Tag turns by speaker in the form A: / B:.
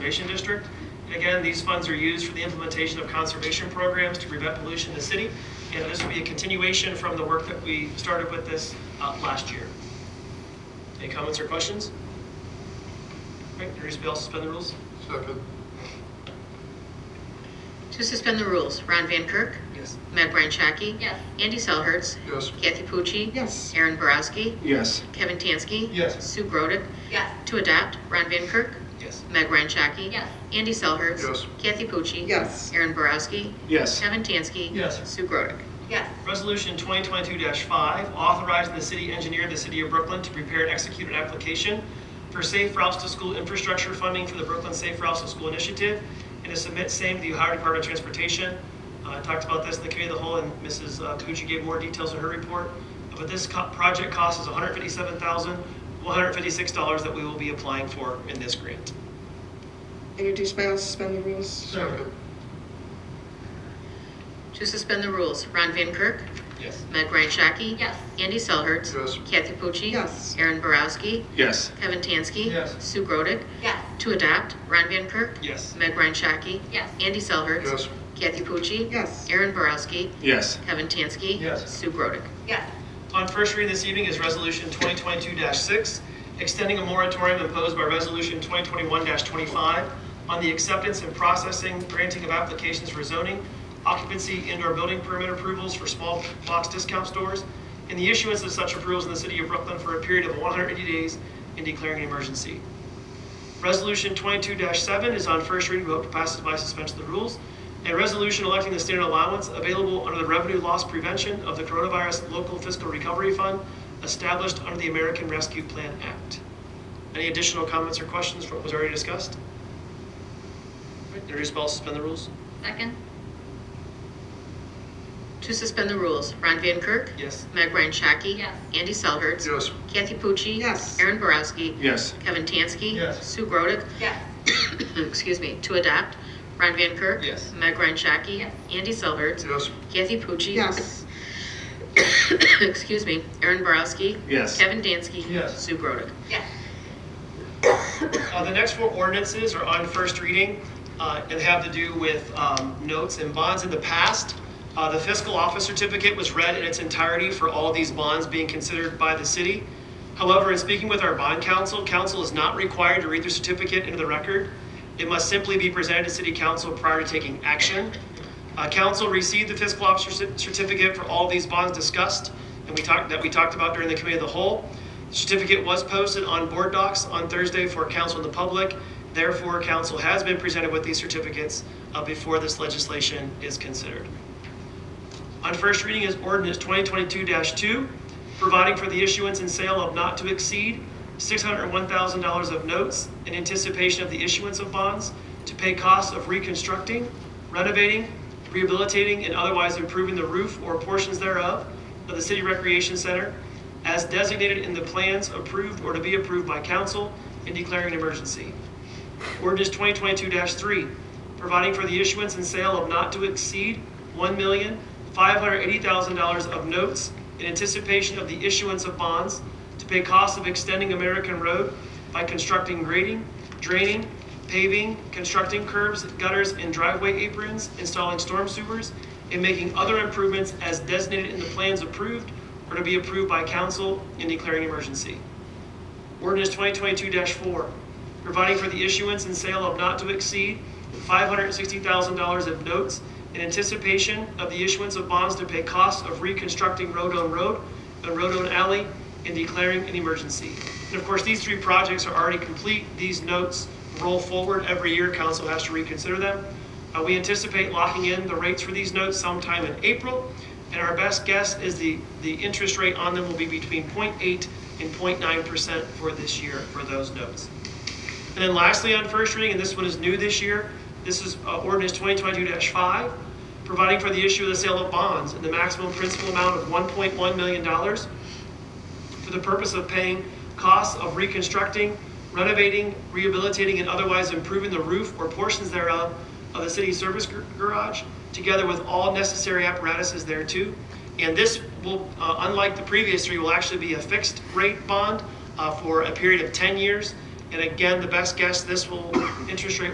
A: Conservation District. And again, these funds are used for the implementation of conservation programs to prevent pollution in the city. And this will be a continuation from the work that we started with this uh, last year. Any comments or questions? All right, introduce bill, suspend the rules.
B: Second,
C: To suspend the rules, Ron Van Kirk,
A: Yes.
C: Meg Ryan Shaki.
D: Yes.
C: Andy Selhertz.
B: yes.
C: Kathy Pucci.
E: Yes.
C: Aaron Borowski.
B: Yes.
C: Kevin Tansky.
B: Yes.
C: Sue Grodick.
D: Yes.
C: To adopt, Ron Van Kirk,
A: Yes.
C: Meg Ryan Shaki.
D: Yes.
C: Andy Selhertz.
B: Yes.
C: Kathy Pucci.
E: Yes.
C: Aaron Borowski.
B: Yes.
C: Kevin Tansky.
A: Yes.
C: Sue Grodick.
D: Yes.
A: Resolution 2022-5, authorizing the city engineer of the city of Brooklyn to prepare and execute an application for safe routes to school infrastructure funding for the Brooklyn Safe Routes to School Initiative, and to submit same to the Ohio Department of Transportation. Uh, I talked about this in the committee of the whole, and Mrs. Kikuchi gave more details in her report, but this co- project cost is $157,156 that we will be applying for in this grant.
E: Introduced by all, suspend the rules.
B: Second,
C: To suspend the rules, Ron Van Kirk,
A: Yes.
C: Meg Ryan Shaki.
D: Yes.
C: Andy Selhertz.
B: yes.
C: Kathy Pucci.
E: Yes.
C: Aaron Borowski.
B: Yes.
C: Kevin Tansky.
A: Yes.
C: Sue Grodick.
D: Yes.
C: To adopt, Ron Van Kirk,
A: Yes.
C: Meg Ryan Shaki.
D: Yes.
C: Andy Selhertz.
B: Yes.
C: Kathy Pucci.
E: Yes.
C: Aaron Borowski.
B: Yes.
C: Kevin Tansky.
A: Yes.
C: Sue Grodick.
D: Yes.
A: On first reading this evening is Resolution 2022-6, extending a moratorium imposed by Resolution 2021-25 on the acceptance and processing, granting of applications for zoning, occupancy, indoor building permit approvals for small box discount stores, and the issuance of such approvals in the city of Brooklyn for a period of 180 days and declaring an emergency. Resolution 22-7 is on first reading, We hope to pass it by suspension of the rules. A resolution electing the standard allowance available under the Revenue Loss Prevention of the Coronavirus Local Fiscal Recovery Fund established under the American Rescue Plan Act. Any additional comments or questions from what was already discussed? All right, Introduce by all, suspend the rules?
D: Second.
C: To suspend the rules, Ron Van Kirk.
A: Yes.
C: Meg Ryan Shaki.
D: Yes.
C: Andy Selhertz.
B: Yes.
C: Kathy Pucci.
E: Yes.
C: Aaron Borowski.
B: Yes.
C: Kevin Tansky.
A: Yes.
C: Sue Grodick.
D: Yes.
C: Excuse me. To adopt, Ron Van Kirk.
A: Yes.
C: Meg Ryan Shaki.
D: Yes.
C: Andy Selhertz.
B: Yes.
C: Kathy Pucci.
E: Yes.
C: Excuse me. Aaron Borowski.
B: Yes.
C: Kevin Dansky.
A: Yes.
C: Sue Grodick.
D: Yes.
A: Uh, The next four ordinances are on first reading uh, and have to do with um, notes and bonds in the past. Uh, The fiscal office certificate was read in its entirety for all these bonds being considered by the city. However, in speaking with our bond council, council is not required to read the certificate into the record. It must simply be presented to city council prior to taking action. Uh, Council received the fiscal officer cer- certificate for all these bonds discussed and we talked, that we talked about during the committee of the whole. The Certificate was posted on board docs on Thursday for council and the public. Therefore, council has been presented with these certificates uh, before this legislation is considered. On first reading is ordinance 2022-2, providing for the issuance and sale of not to exceed $601,000 of notes in anticipation of the issuance of bonds to pay costs of reconstructing, renovating, rehabilitating, and otherwise improving the roof or portions thereof of the City Recreation Center as designated in the plans approved or to be approved by council and declaring an emergency. Ordinance 2022-3, providing for the issuance and sale of not to exceed $1,580,000 of notes in anticipation of the issuance of bonds to pay costs of extending American Road by constructing grading, draining, paving, constructing curbs, gutters, and driveway aprons, installing storm sewers, and making other improvements as designated in the plans approved or to be approved by council in declaring emergency. Ordinance 2022-4, providing for the issuance and sale of not to exceed $560,000 of notes in anticipation of the issuance of bonds to pay costs of reconstructing Rodone Road and Rodone Alley and declaring an emergency. And of course, these three projects are already complete. These notes roll forward every year. Council has to reconsider them. Uh, We anticipate locking in the rates for these notes sometime in April, and our best guess is the, the interest rate on them will be between 0.8 and 0.9% for this year for those notes. And then lastly, on first reading, and this one is new this year, this is uh, ordinance 2022-5, providing for the issue of the sale of bonds in the maximum principal amount of $1.1 million for the purpose of paying costs of reconstructing, renovating, rehabilitating, and otherwise improving the roof or portions thereof of the city service gar- garage, together with all necessary apparatuses thereto. And this will, uh, unlike the previous three, will actually be a fixed rate bond uh, for a period of 10 years. And again, the best guess, this will, interest rate